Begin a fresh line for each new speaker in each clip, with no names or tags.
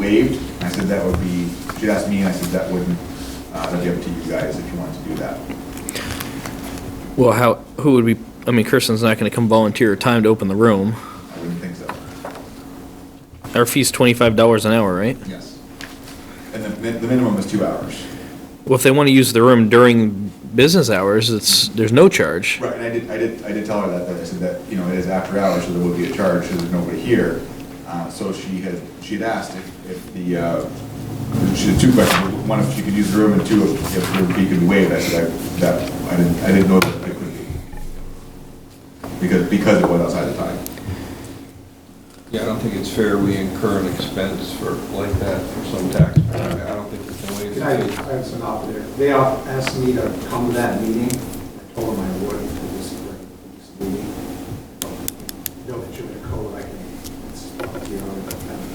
waived. And I said that would be, she asked me, and I said that wouldn't, uh, that'd be up to you guys if you wanted to do that.
Well, how, who would be, I mean, Kristen's not gonna come volunteer her time to open the room.
I wouldn't think so.
Our fee's twenty-five dollars an hour, right?
Yes. And the, min- the minimum was two hours.
Well, if they wanna use the room during business hours, it's, there's no charge.
Right, and I did, I did, I did tell her that, that I said that, you know, it is after hours, so there would be a charge, so there's nobody here. Uh, so she had, she had asked if, if the, uh, she had two questions, one if she could use the room, and two if, if the fee could be waived, I said, I, that, I didn't, I didn't know that it could be. Because, because it was outside the time.
Yeah, I don't think it's fair we incur an expense for, like that, for some taxpayer. I don't think we can waive
I
it.
I have some out there. They all asked me to come to that meeting. I told them I would for this, for this meeting. Don't get you in a code, I can, it's, you know, I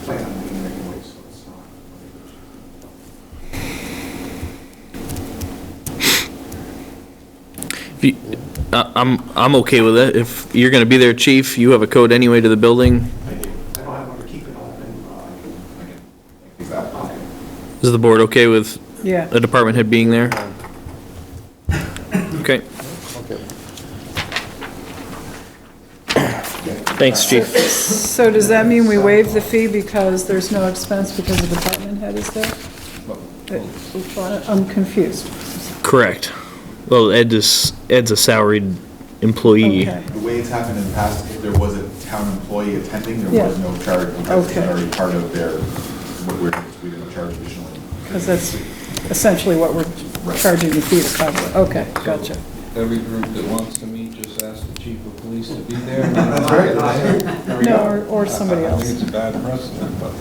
plan on being there anyway, so it's not.
If you- I, I'm, I'm okay with it. If you're gonna be there, chief, you have a code anyway to the building.
I do. I don't have to keep it open, uh, I can,
Okay. Exactly.
I'll-
Is the board okay with
Yeah.
the department head being there? Okay. Thanks, chief.
So does that mean we waive the fee because there's no expense because the department head is there? I'm confused.
Correct. Well, Ed is, Ed's a salaried employee.
Okay.
The way it's happened in the past, if there was a town employee attending, there was
Yeah.
no charge, because it's
Okay.
already part of their, what we're, we didn't charge additionally.
Because that's essentially what we're charging the fee to cover. Okay, gotcha.
Every group that wants to meet, just ask the chief of police to be there.
That's right.
There we
No,
go.
or- or somebody
I- I
else.
think it's a bad precedent, but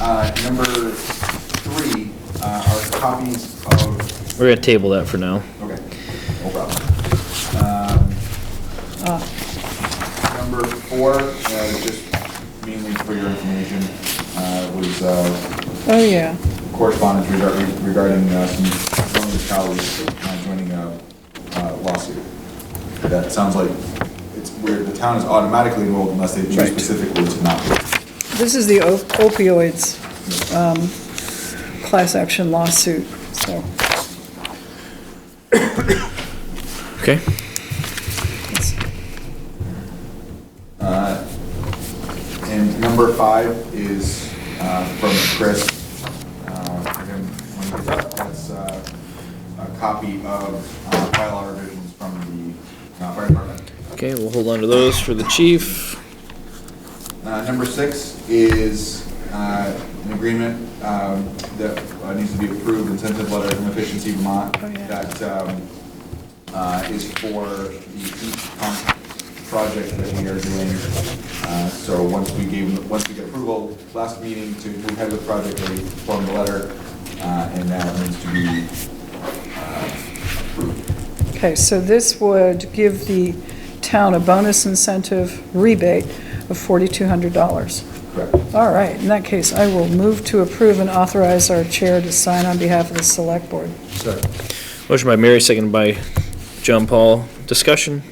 Uh, Number three uh, are copies of,
We're gonna table that for now.
okay, no problem. Um,
Ah.
Number four, uh, just mainly for your information, uh, was uh,
Oh, yeah.
correspondence regar- regarding uh, some some of his colleagues uh, joining a uh, lawsuit. That sounds like, it's weird, the town is automatically enrolled unless they choose
Right.
specifically to not be.
This is the op- opioids um, class action lawsuit, so
Okay?
it's
Uh, And number five is uh, from Chris. Uh, and then when he gets up, That's uh, a copy of uh, bylaw revisions from the uh, fire department.
Okay, we'll hold on to those for the chief.
Uh, Number six is uh, an agreement um, that uh, needs to be approved, incentive letter from Efficiency Vermont.
Oh, yeah.
That um, uh, is for the heat pump project that we are doing. Uh, So once we gave, once we get approval, last meeting to move ahead with the project, we formed the letter, uh, and now it needs to be
Okay, so this would give the town a bonus incentive rebate of $4,200.
correct.
All right, in that case, I will move to approve and authorize our chair to sign on behalf of the select board.
Motion by Mary, seconded by John Paul. Discussion?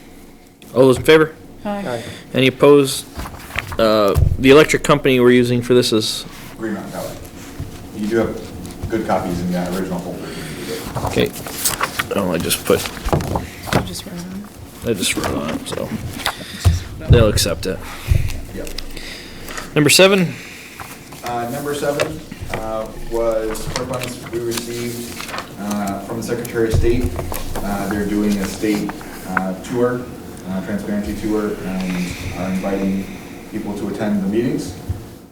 All those in favor?
Hi.
Any opposed? Uh, The electric company we're using for this is,
Green Mountain Power. You do have good copies in the uh, original folder.
okay, oh, I just put,
Just write on
I just wrote on it, so
it.
they'll accept it.
Yep.
Number seven,
Uh, Number seven uh, was correspondence we received uh, from the Secretary of State. Uh, They're doing a state uh, tour, uh, transparency tour, and are inviting people to attend the meetings.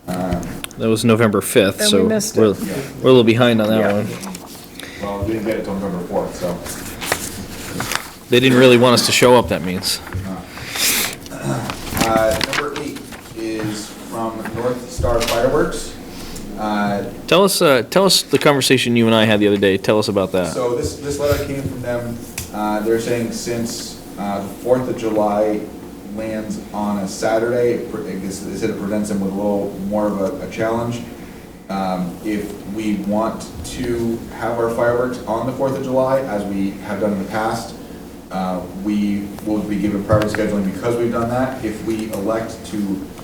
Uh,
that was November 5th,
And
so
we
we're
missed it.
we're a little behind on that one.
Well, we didn't get it till November 4th, so
They didn't really want us to show up, that means.
Uh, Number eight is from North Star Fireworks. Uh,
Tell us, uh, tell us the conversation you and I had the other day. Tell us about that.
So this, this letter came from them, uh, they're saying since, uh, the Fourth of July lands on a Saturday, it pre- I guess they said it presents them with a little more of a, a challenge. Um, if we want to have our fireworks on the Fourth of July, as we have done in the past, uh, we will be given priority scheduling because we've done that. If we elect to